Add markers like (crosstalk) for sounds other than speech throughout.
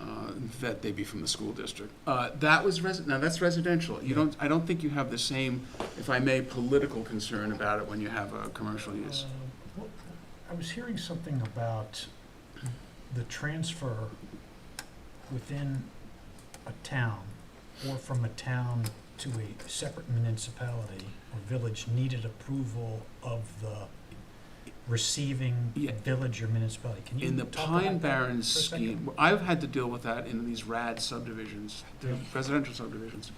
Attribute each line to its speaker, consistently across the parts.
Speaker 1: uh, that they be from the school district. Uh, That was resi, now that's residential. You don't, I don't think you have the same, if I may, political concern about it when you have a commercial use.
Speaker 2: Uh, what- I was hearing something about the transfer within a town or from a town to a separate municipality or village needed approval of the receiving
Speaker 1: Yeah.
Speaker 2: village or municipality. Can you
Speaker 1: In the
Speaker 2: talk about
Speaker 1: Pine
Speaker 2: that
Speaker 1: Barrens
Speaker 2: for a second?
Speaker 1: scheme, I've had to deal with that in these rad subdivisions, the
Speaker 2: Yeah.
Speaker 1: residential subdivisions.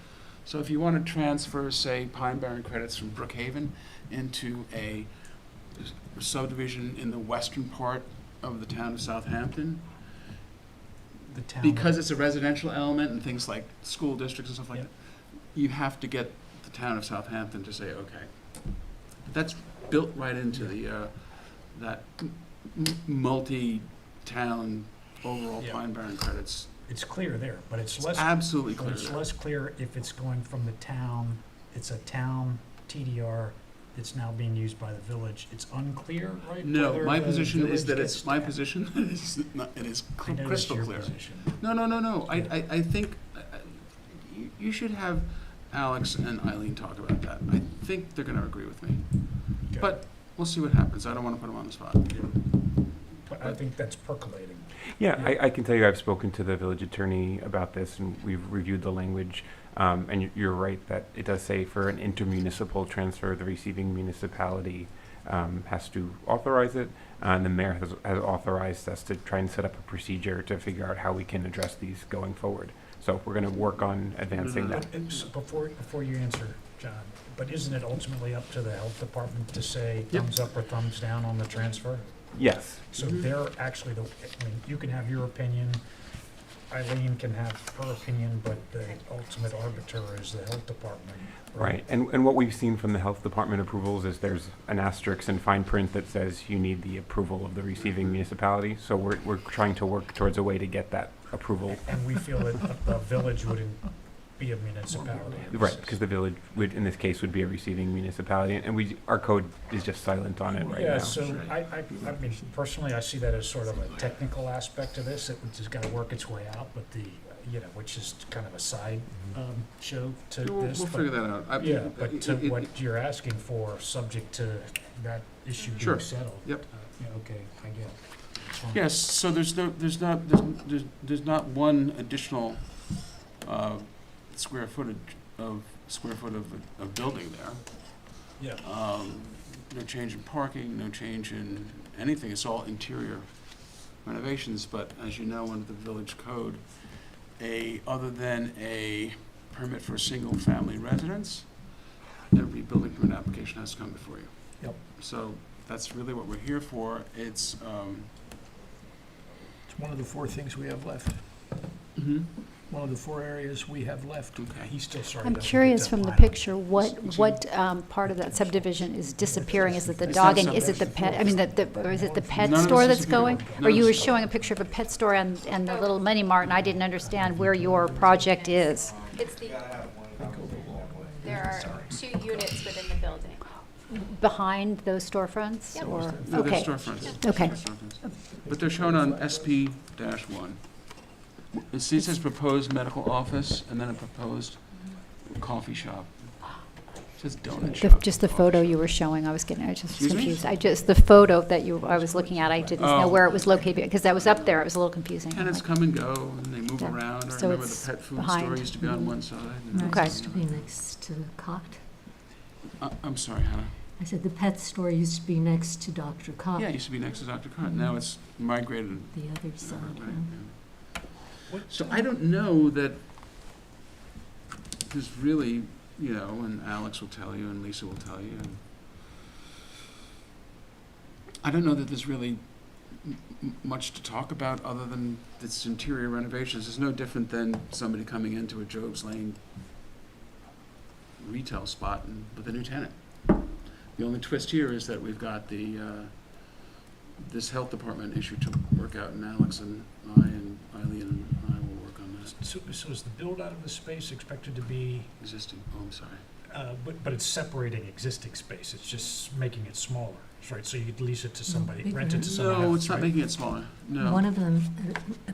Speaker 1: So if you want to transfer, say, Pine Barren credits from Brookhaven into a subdivision in the western part of the town of Southampton,
Speaker 2: The town.
Speaker 1: because it's a residential element and things like school districts and stuff like
Speaker 2: Yeah.
Speaker 1: that, you have to get the town of Southampton to say, okay. That's built right into the, uh, that m- m- multi-town overall
Speaker 2: Yeah.
Speaker 1: Pine Barren credits.
Speaker 2: It's clear there, but it's
Speaker 1: It's
Speaker 2: less
Speaker 1: absolutely
Speaker 2: But
Speaker 1: clear.
Speaker 2: it's
Speaker 1: there.
Speaker 2: less clear if it's going from the town, it's a town TDR that's now being used by the village. It's unclear, right?
Speaker 1: No,
Speaker 2: whether
Speaker 1: my
Speaker 2: the
Speaker 1: position is
Speaker 2: village
Speaker 1: that
Speaker 2: gets
Speaker 1: it's, my
Speaker 2: to-
Speaker 1: position (laughs) is, not- it is
Speaker 2: I know that's
Speaker 1: crystal
Speaker 2: your
Speaker 1: clear.
Speaker 2: position.
Speaker 1: No, no, no, no. I,
Speaker 2: Yeah.
Speaker 1: I, I think, I- I- you, you should have Alex and Eileen talk about that. I think they're gonna agree with me.
Speaker 2: Okay.
Speaker 1: But we'll see what happens. I don't wanna put them on the spot.
Speaker 2: But I think that's percolating.
Speaker 3: Yeah, I, I can tell you, I've spoken to the village attorney about this, and we've reviewed the language. Um, and you- you're right that it does say for an intermunicipal transfer, the receiving municipality um, has to authorize it. Uh, and the mayor has, has authorized us to try and set up a procedure to figure out how we can address these going forward. So we're going to work on advancing
Speaker 1: No.
Speaker 3: that.
Speaker 2: But it's- Before, before you answer, John, but isn't it ultimately up to the health department to say
Speaker 1: Yep.
Speaker 2: thumbs up or thumbs down on the transfer?
Speaker 3: Yes.
Speaker 2: So
Speaker 1: Mhm.
Speaker 2: they're actually the, I mean, you can have your opinion, Eileen can have her opinion, but the ultimate arbiter is the health department.
Speaker 3: Right, and, and what we've seen from the health department approvals is there's an asterisk and fine print that says you need the approval of the receiving municipality, so we're, we're trying to work towards a way to get that approval.
Speaker 2: And we feel that a- a village wouldn't be a municipality.
Speaker 3: Right, because the village would, in this case, would be a receiving municipality, and we, our code is just silent on it right
Speaker 2: Yeah,
Speaker 3: now.
Speaker 2: so I, I, I mean, personally, I see that as sort of a technical aspect to this, it- which has gotta work its way out, but the, you know, which is kind of a side, um, show to
Speaker 1: We'll, we'll
Speaker 2: this. but-
Speaker 1: figure that out. I-
Speaker 2: Yeah,
Speaker 1: it-
Speaker 2: but
Speaker 1: it-
Speaker 2: to
Speaker 1: it-
Speaker 2: what you're asking for, subject to that issue
Speaker 1: Sure.
Speaker 2: being settled.
Speaker 1: Yep.
Speaker 2: Uh, Yeah, okay, I get it. It's fine.
Speaker 1: Yes, so there's no, there's not, there's, there's, there's not one additional, uh, square footage of, square foot of, of building there.
Speaker 2: Yeah.
Speaker 1: Um, no change in parking, no change in anything, it's all interior renovations, but as you know, under the village code, a, other than a permit for a single-family residence, every building permit application has to come before you.
Speaker 2: Yep.
Speaker 1: So that's really what we're here for, it's, um,
Speaker 4: It's one of the four things we have left, one of the four areas we have left.
Speaker 1: Okay.
Speaker 2: He's still sorry.
Speaker 5: I'm
Speaker 2: doesn't get
Speaker 5: curious
Speaker 2: that
Speaker 5: from the
Speaker 2: lineup.
Speaker 5: picture, what,
Speaker 1: Excuse me?
Speaker 5: what um, part of that subdivision is disappearing? Is it the
Speaker 1: It's
Speaker 5: dog
Speaker 1: not
Speaker 5: and, is it the pet, I mean, the- the, or is it the pet
Speaker 1: None of
Speaker 5: store
Speaker 1: this is
Speaker 5: that's
Speaker 1: appealing.
Speaker 5: going?
Speaker 1: None
Speaker 5: Or
Speaker 1: of
Speaker 5: you
Speaker 1: this
Speaker 5: were
Speaker 1: is-
Speaker 5: showing a picture of a pet store and, and the little mini mart, and I didn't understand where your project is.
Speaker 6: It's the, there are two units within the building.
Speaker 5: Behind those storefronts,
Speaker 6: Yep.
Speaker 5: or?
Speaker 1: No, they're
Speaker 5: okay.
Speaker 1: storefronts.
Speaker 5: Okay.
Speaker 1: They're storefronts. But they're shown on SP dash one. It sees says proposed medical office and then a proposed coffee shop. It Says donut
Speaker 5: The-
Speaker 1: shop.
Speaker 5: Just the photo you were showing, I was getting, I was just
Speaker 1: Excuse me?
Speaker 5: confused. I just, the photo that you, I was looking at, I didn't
Speaker 1: Oh.
Speaker 5: know where it was located, because that was up there, it was a little confusing.
Speaker 1: Tenants come and go and they move
Speaker 5: Yeah.
Speaker 1: around. I
Speaker 5: So
Speaker 1: remember the
Speaker 5: it's
Speaker 1: pet food store
Speaker 5: behind.
Speaker 1: used to be on one side. and-
Speaker 5: Okay.
Speaker 7: Used to be next to the cot.
Speaker 1: I- Uh, I'm sorry, Hannah.
Speaker 7: I said the pet store used to be next to Dr. Cot,
Speaker 5: Uh,
Speaker 1: Yeah, it used to be next to Dr. Cotton. Now it's migrated.
Speaker 7: the other
Speaker 1: over,
Speaker 7: side.
Speaker 1: right,
Speaker 7: huh?
Speaker 1: yeah. So I don't know that there's really, you know, and Alex will tell you and Lisa will tell you and I don't know that there's really m- m- much to talk about other than its interior renovations. It's no different than somebody coming into a Job's Lane retail spot and with a new tenant. The only twist here is that we've got the, uh, this health department issue to work out and Alex and I and Eileen and I will work on that
Speaker 2: So, so is the build out of the space expected to be,
Speaker 1: existing, oh, I'm sorry.
Speaker 2: uh, but, but it's separating existing space, it's just making it smaller, right? So you could lease it to
Speaker 7: No,
Speaker 2: somebody,
Speaker 7: bigger.
Speaker 2: rent it to someone else,
Speaker 1: No, it's not
Speaker 2: right?
Speaker 1: making it smaller, no.
Speaker 7: One of them, uh,